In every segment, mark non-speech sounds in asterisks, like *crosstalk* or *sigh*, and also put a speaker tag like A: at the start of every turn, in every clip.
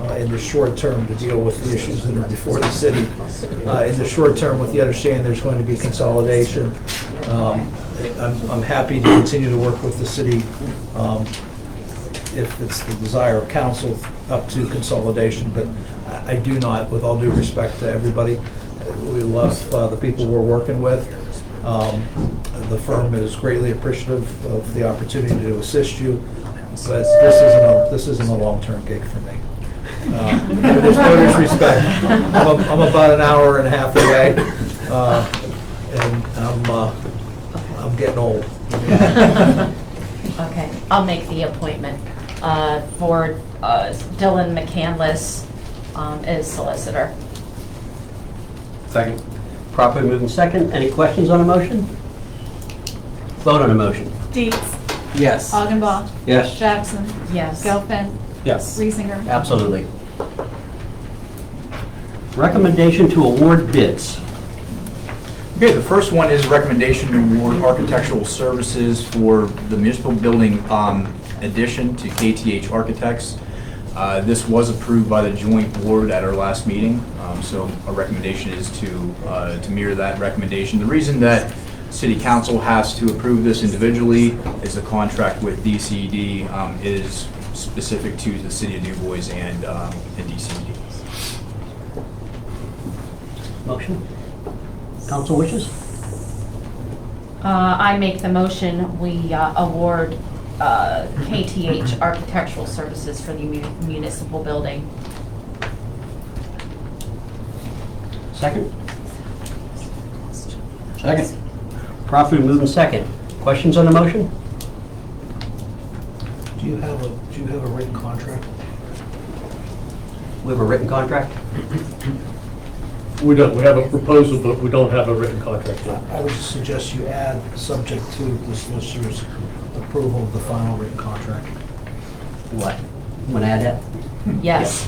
A: uh, in the short term to deal with the issues that are before the city. Uh, In the short term, with the understanding there's going to be consolidation, um, I'm I'm happy to continue to work with the city um, if it's the desire of council up to consolidation, but I- I do not, with all due respect to everybody, we love uh, the people we're working with. Um, The firm is greatly appreciative of the opportunity to assist you, but this isn't, a- this isn't a long-term gig for me. Uh, There's no disrespect. I'm a- I'm about an hour and a half away, uh, and I'm, uh, I'm getting old.
B: Okay, I'll make the appointment uh, for uh, Dylan McCandless um, as solicitor.
C: Second. Properly moved and second. Any questions on a motion? Vote on a motion.
D: Dietz.
C: Yes.
D: Augenbaugh.
C: Yes.
D: Jackson.
B: Yes.
D: Gelfen.
C: Yes.
D: Reesinger.
C: Absolutely. Recommendation to award bids.
E: Okay, the first one is recommendation to award architectural services for the municipal building um, addition to KTH Architects. Uh, This was approved by the joint board at our last meeting, um, so our recommendation is to, uh, to mirror that recommendation. The reason that city council has to approve this individually is the contract with DCD um, is specific to the city of New Boys and um, and DCD.
C: Motion? Council wishes?
B: Uh, I make the motion, we uh, award uh, KTH Architectural Services for the mu- municipal building.
C: Second? Second. Properly moved and second. Questions on the motion?
A: Do you have a, do you have a written contract?
C: We have a written contract?
F: We don't, we have a proposal, but we don't have a written contract yet.
A: I would suggest you add, subject to the solicitor's approval of the final written contract.
C: What? Want to add that?
B: Yes.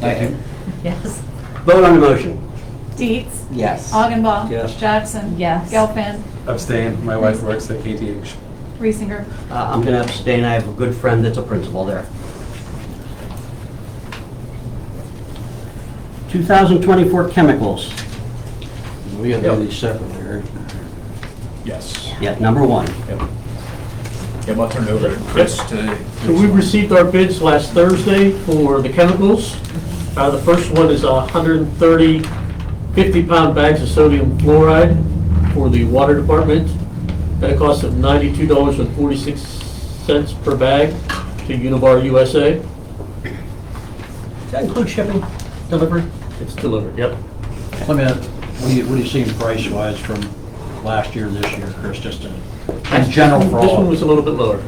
C: Thank you.
B: *laughs* Yes.
C: Vote on the motion.
D: Dietz.
C: Yes.
D: Augenbaugh.
F: Yes.
D: Jackson.
B: Yes.
D: Gelfen.
G: Abstain, my wife works at KTH.
D: Reesinger.
C: Uh, I'm going to abstain. I have a good friend that's a principal there. 2024 chemicals.
H: We gotta do these separately, right?
E: Yes.
C: Yeah, number one.
E: Yep. Yep, I'll turn it over to Chris to.
F: So we received our bids last Thursday for the chemicals. Uh, The first one is 130 50-pound bags of sodium fluoride for the water department at a cost of $92.46 per bag to Univar USA.
C: Does that include shipping, delivery?
F: It's delivered, yep.
H: Let me, what do you, what do you see in price wise from last year, this year, Chris, just in, in general for
F: This one
H: all?
F: was a little bit lower.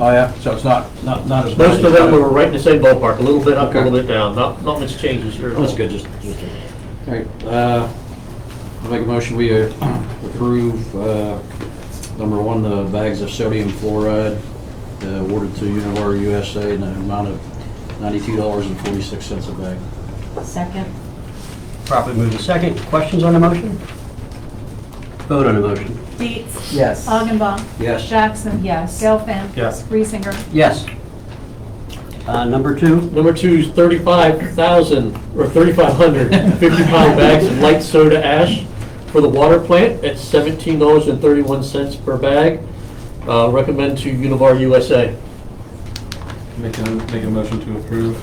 H: Oh, yeah, so it's not, not, not as. bad
F: Most
H: as-
F: of them were right in the same ballpark, a little bit up, a
H: Okay.
F: little bit down, not, not much changes here. at all.
H: That's good, just, just. All right, uh, I'll make a motion, we uh, approve, uh, number one, the bags of sodium fluoride uh, awarded to Univar USA in the amount of ninety-two dollars and forty-six cents a bag.
B: Second?
C: Properly moved and second. Questions on the motion? Vote on the motion.
D: Dietz.
C: Yes.
D: Augenbaugh.
H: Yes.
D: Jackson.
B: Yes.
D: Gelfen.
F: Yes.
D: Reesinger.
C: Yes. Uh, Number two,
F: Number two is 35,000, or 3,500 50-pound bags of light soda ash for the water plant at $17.31 per bag. Uh, Recommend to Univar USA.
G: Make a, make a motion to approve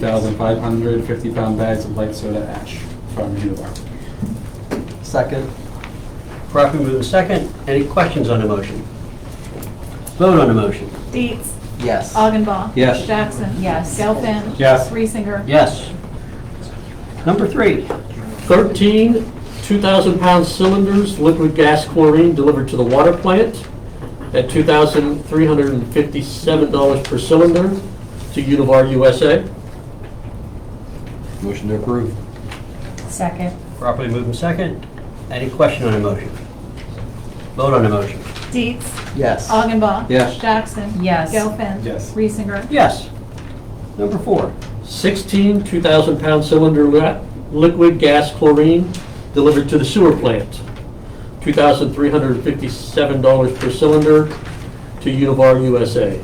G: 3,550 pound bags of light soda ash from Univar.
C: Second. Properly moved and second. Any questions on the motion? Vote on the motion.
D: Dietz.
C: Yes.
D: Augenbaugh.
H: Yes.
D: Jackson.
B: Yes.
D: Gelfen.
G: Yes.
D: Reesinger.
C: Yes. Number three,
F: 13 2,000-pound cylinders, liquid gas chlorine delivered to the water plant at $2,357 per cylinder to Univar USA.
H: Motion to approve.
B: Second?
C: properly moved and second. Any question on the motion? Vote on the motion. Uh,
D: Dietz.
C: Yes.
D: Augenbaugh.
H: Yes.
D: Jackson.
B: Yes.
D: Gelfen.
G: Yes.
D: Reesinger.
C: Yes. Number four,
F: 16 2,000-pound cylinder li- liquid gas chlorine delivered to the sewer plant. $2,357 per cylinder to Univar USA.